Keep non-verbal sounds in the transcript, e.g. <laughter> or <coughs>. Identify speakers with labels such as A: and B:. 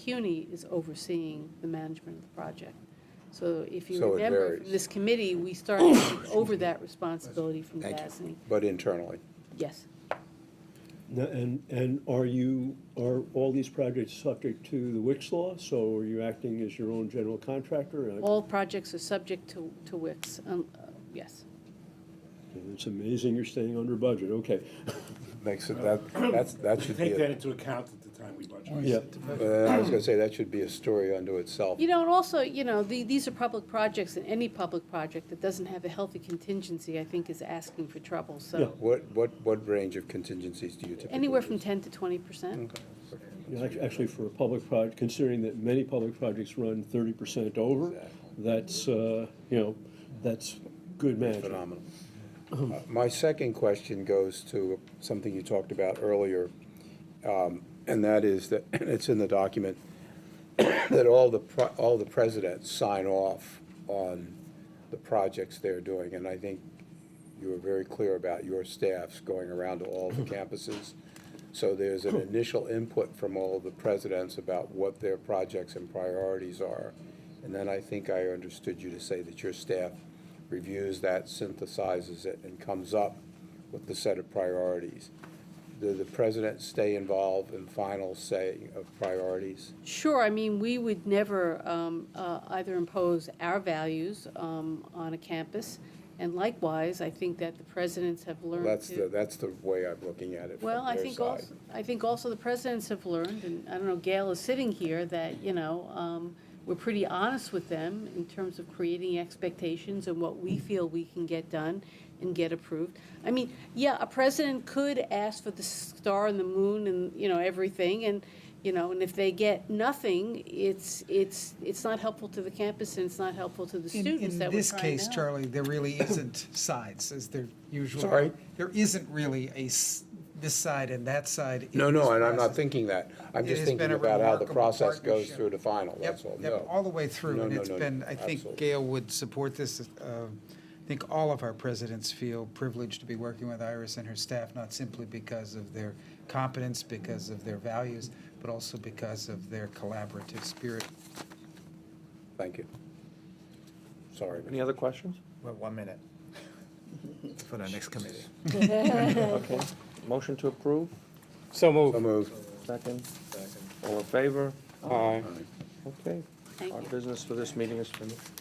A: CUNY is overseeing the management of the project. So if you
B: So it
A: remember,
B: varies.
A: from this committee, we started to take over that responsibility from
B: Thank you.
A: DASNY.
B: But internally,
A: Yes,
C: No, And, and are you, are all these projects subject to the Wix law? So are you acting as your own general contractor? I-
A: all projects are subject to, to WIX, um, uh, yes.
C: It's amazing you're staying under budget, okay.
B: makes it, that, that's, that should be,
D: Take that
B: a-
D: into account at the time we budget.
C: Yeah,
B: uh, I was gonna say, that should be a story unto itself.
A: You know, and also, you know, the, these are public projects, and any public project that doesn't have a healthy contingency, I think, is asking for trouble, so.
B: What, what, what range of contingencies do you typically?
A: Anywhere from
B: use?
A: ten to twenty percent.
C: You know, act- Actually, for a public project, considering that many public projects run thirty percent over,
B: Exactly.
C: that's, uh, you know, that's good management.
B: Phenomenal. Uh, My second question goes to something you talked about earlier, um, and that is that, <clears throat> it's in the document, <coughs> that all the, pro- all the presidents sign off on the projects they're doing. And I think you were very clear about your staffs going around to all the campuses. So there's an initial input from all of the presidents about what their projects and priorities are. And then I think I understood you to say that your staff reviews that, synthesizes it, and comes up with the set of priorities. Do the presidents stay involved in final say of priorities?
A: Sure, I mean, we would never um, uh, either impose our values um, on a campus, and likewise, I think that the presidents have learned to.
B: That's the, that's the way I'm looking at it from
A: Well, I
B: their
A: think
B: side.
A: also, I think also the presidents have learned, and I don't know, Gail is sitting here, that, you know, um, we're pretty honest with them in terms of creating expectations and what we feel we can get done and get approved. I mean, yeah, a president could ask for the star and the moon and, you know, everything, and, you know, and if they get nothing, it's, it's, it's not helpful to the campus and it's not helpful to the
E: In-
A: students that
E: In
A: we're
E: this
A: trying
E: case,
A: to help.
E: Charlie, there really isn't sides, as there usually.
B: Sorry?
E: There isn't really a, s- this side and that side. in
B: No,
E: this
B: no, and I'm not
E: process.
B: thinking that. I'm
E: It
B: just
E: has been
B: thinking
E: a
B: about how the
E: remarkable
B: process goes
E: partnership.
B: through to final,
E: Yep,
B: that's all.
E: yep,
B: No.
E: all the way through,
B: No,
E: and
B: no,
E: it's
B: no,
E: been, I think
B: absolutely.
E: Gail would support this. uh, I think all of our presidents feel privileged to be working with Iris and her staff, not simply because of their competence, because of their values, but also because of their collaborative spirit.
B: Thank you. Sorry.
F: Any other questions?
G: Well, one minute. For the next committee.
F: Okay. Motion to approve,
B: So moved. So moved.
F: second. All in favor?
B: Aye.
F: Okay.
A: Thank
F: Our
A: you.
F: business for this meeting is finished.